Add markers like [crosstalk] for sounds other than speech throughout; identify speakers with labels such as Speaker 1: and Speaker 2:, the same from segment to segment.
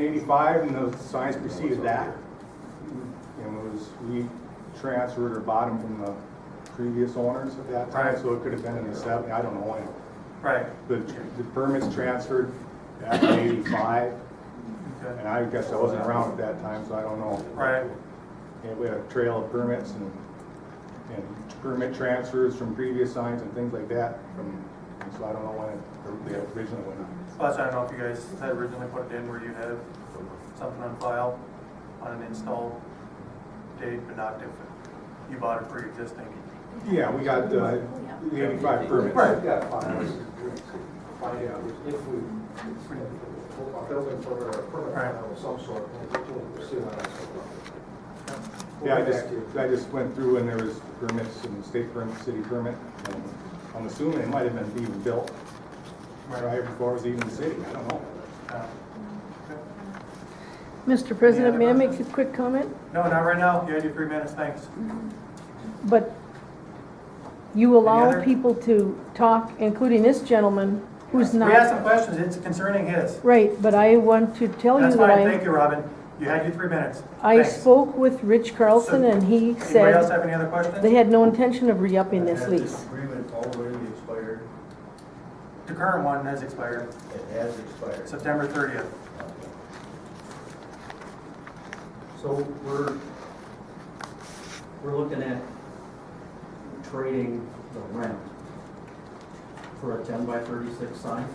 Speaker 1: eighty-five, and the signs preceded that. And it was, we transferred or bought them from the previous owners at that time,
Speaker 2: Right.
Speaker 1: so it could have been in the seventy, I don't know when.
Speaker 2: Right,
Speaker 1: The, the permits transferred back in eighty-five,
Speaker 2: okay,
Speaker 1: and I guess I wasn't around at that time, so I don't know.
Speaker 2: right,
Speaker 1: And we had a trail of permits and, and permit transfers from previous signs and things like that, from, and so I don't know when it, the original went on.
Speaker 2: plus I don't know if you guys had originally put it in where you have something on file on an install date, but not if you bought it pre-existing.
Speaker 1: Yeah, we got, uh, the eighty-five permits.
Speaker 2: Right.
Speaker 3: Yeah, fine.
Speaker 1: Yeah.
Speaker 3: If we, if we have a building permit or a permit
Speaker 2: Right.
Speaker 3: of some sort, we'll see what happens.
Speaker 1: Yeah, I just, I just went through and there was permits and state permit, city permit. and I'm assuming it might have been even built right before it was even city, I don't know.
Speaker 2: Uh,
Speaker 4: Mr. President, may I make a
Speaker 2: questions?
Speaker 4: quick comment?
Speaker 2: No, not right now, you had your three minutes, thanks.
Speaker 4: But you allow
Speaker 2: other-
Speaker 4: people to talk, including this gentleman, who's
Speaker 2: We asked
Speaker 4: not.
Speaker 2: some questions, it's concerning his.
Speaker 4: Right, but I want to tell you
Speaker 2: That's
Speaker 4: that
Speaker 2: fine, thank
Speaker 4: I,
Speaker 2: you, Robin, you had your three minutes.
Speaker 4: I
Speaker 2: Thanks.
Speaker 4: spoke with Rich Carlson
Speaker 2: So-
Speaker 4: and he
Speaker 2: Anybody else
Speaker 4: said
Speaker 2: have any other questions?
Speaker 4: they had no intention of re-upping this
Speaker 5: That
Speaker 4: lease.
Speaker 5: Agreement already expired,
Speaker 2: The current one has expired,
Speaker 5: it has expired.
Speaker 2: September thirtieth.
Speaker 6: So we're, we're looking at trading the rent for a ten by thirty-six sign,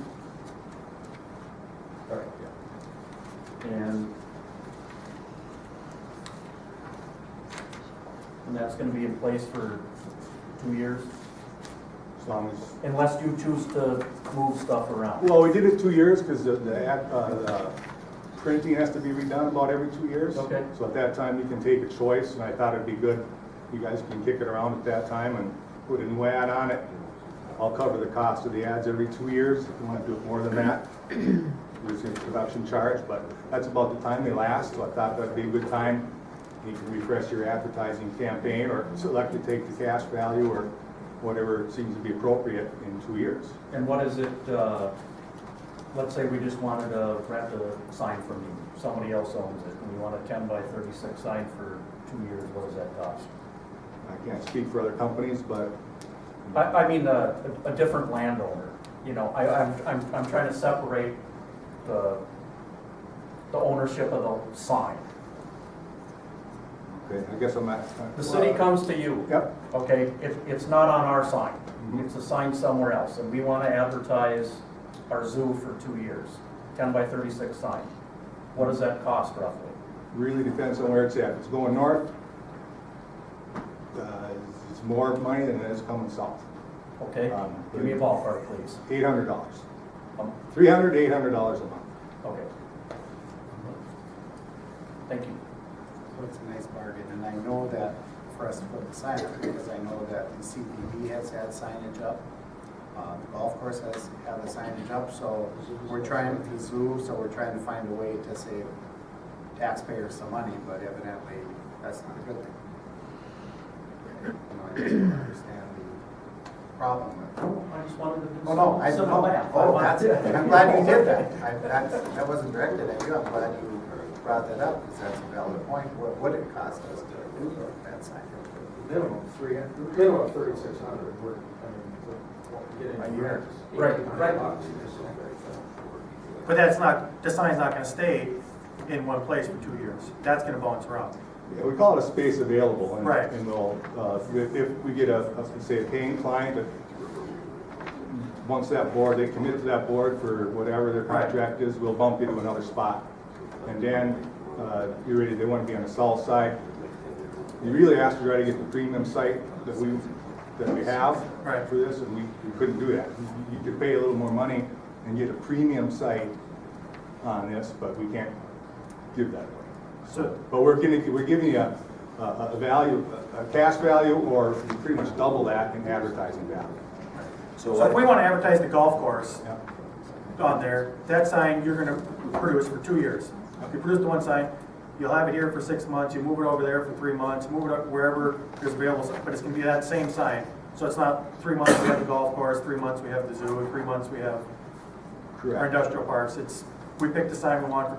Speaker 5: Correct,
Speaker 6: and and that's gonna be in place for two years,
Speaker 1: As long as,
Speaker 6: unless you choose to move stuff around.
Speaker 1: well, we did it two years because the, the, ad- uh, the printing has to be redone about every two years.
Speaker 6: Okay.
Speaker 1: So at that time, you can take a choice and I thought it'd be good, you guys can kick it around at that time and put a new ad on it. I'll cover the cost of the ads every two years, if you want to do it more than that. There's a production charge, but that's about the time they last, so I thought that'd be a good time. You can refresh your advertising campaign or select to take the cash value or whatever seems to be appropriate in two years.
Speaker 6: And what is it, uh, let's say we just wanted to rent a sign from you, somebody else owns it, and we want a ten by thirty-six sign for two years, what does that cost?
Speaker 1: I can't speak for other companies, but
Speaker 6: I, I mean, a, a different landowner, you know, I, I'm, I'm, I'm trying to separate the, the ownership of the sign.
Speaker 1: okay, I guess I'm not.
Speaker 6: The city comes to you.
Speaker 1: Yep,
Speaker 6: Okay, it, it's not on our sign,
Speaker 7: Mm-hmm.
Speaker 1: Mhm.
Speaker 6: it's a sign somewhere else, and we wanna advertise our zoo for two years, ten by thirty-six sign. What does that cost roughly?
Speaker 1: really depends on where it's at. If it's going north, uh, it's more money than it is coming south.
Speaker 6: Okay,
Speaker 1: Um,
Speaker 6: give me a ballpark, please.
Speaker 1: Eight hundred dollars.
Speaker 6: Um,
Speaker 1: Three hundred, eight hundred dollars a month.
Speaker 6: Okay. Thank you.
Speaker 7: So it's a nice bargain, and I know that for us to put the sign up, because I know that the CPB has had signage up. Uh, the golf course has had the signage up, so we're trying, the zoo, so we're trying to find a way to save taxpayers some money, but evidently, that's not a good thing. You know, I just don't understand the problem with it.
Speaker 6: I just wanted to do
Speaker 7: Oh, no, I,
Speaker 6: some
Speaker 7: no,
Speaker 6: math.
Speaker 7: oh,
Speaker 6: [laughs]
Speaker 7: that's it, I'm glad you did that, I, that's, that wasn't directed at you, I'm glad you brought that up, because that's a valid point, what would it cost us to do that sign?
Speaker 3: Minimum three, hun- minimum thirty-six hundred, we're, I mean, we're getting.
Speaker 7: A year.
Speaker 6: Right, right.
Speaker 2: But that's not, the sign's not gonna stay in one place for two years. That's gonna bounce around.
Speaker 1: Yeah, we call it a space available. and-
Speaker 2: Right.
Speaker 1: And we'll, uh, if if we get a, let's say, a paying client, that once that board, they commit to that board for whatever their
Speaker 2: Right.
Speaker 1: contract is, we'll bump you to another spot. And Dan, uh, you're ready, they want to be on the south side. You really asked to try to get the premium site that we, that we have
Speaker 2: Right.
Speaker 1: for this, and we we couldn't do that. You- You could pay a little more money and get a premium site on this, but we can't give that away.
Speaker 2: So,
Speaker 1: But we're giving, we're giving you a, a a value, a cash value, or pretty much double that in advertising value.
Speaker 2: so if we wanna advertise the golf course
Speaker 1: Yeah.
Speaker 2: on there, that sign you're gonna produce for two years. If you produce the one sign, you'll have it here for six months, you move it over there for three months, move it up wherever there's available, sign, but it's gonna be that same sign. So it's not three months we have the golf course, three months we have the zoo, and three months we have our
Speaker 1: Correct.
Speaker 2: industrial parks. It's, we pick the sign we want for